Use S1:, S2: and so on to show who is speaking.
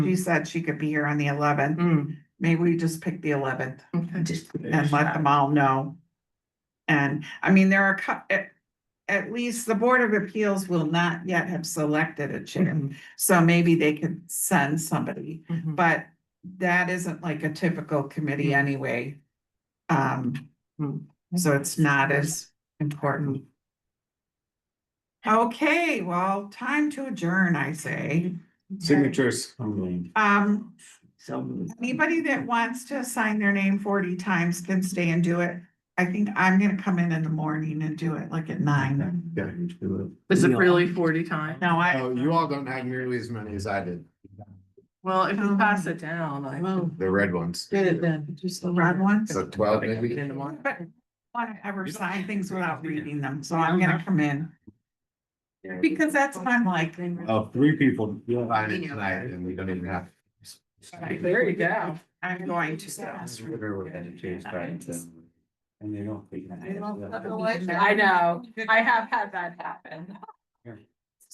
S1: She said she could be here on the eleventh.
S2: Mm,
S1: Maybe we just pick the eleventh
S2: okay.
S1: and let them all know. And, I mean, there are, cou- at, at least the Board of Appeals will not yet have selected a chair.
S2: Mhm,
S1: So maybe they could send somebody,
S2: mhm.
S1: but that isn't like a typical committee
S2: Mm.
S1: anyway. Um,
S2: Mm.
S1: so it's not as important. Okay, well, time to adjourn, I say.
S3: Signatures, I'm
S2: Mm-hmm.
S3: going.
S1: Um,
S2: So moved.
S1: anybody that wants to sign their name forty times can stay and do it. I think I'm gonna come in in the morning and do it like at nine.
S3: Yeah, you do
S2: Is it really forty times?
S1: No,
S3: it.
S1: I.
S3: Oh, you all don't have nearly as many as I did,
S2: Well, if you pass it down, I will.
S3: the red ones.
S2: Um, then. Just
S1: The red ones?
S3: So twelve Oh, maybe?
S2: In the morning.
S1: But want to ever sign things without reading them, so
S2: Yeah,
S1: I'm gonna
S2: okay.
S1: come in. Because that's what I'm like.
S3: Oh, three people. You'll find it tonight and we don't even have.
S2: There you go.
S1: I'm going to. so.
S3: And they don't think.
S4: I know, I have had that happen.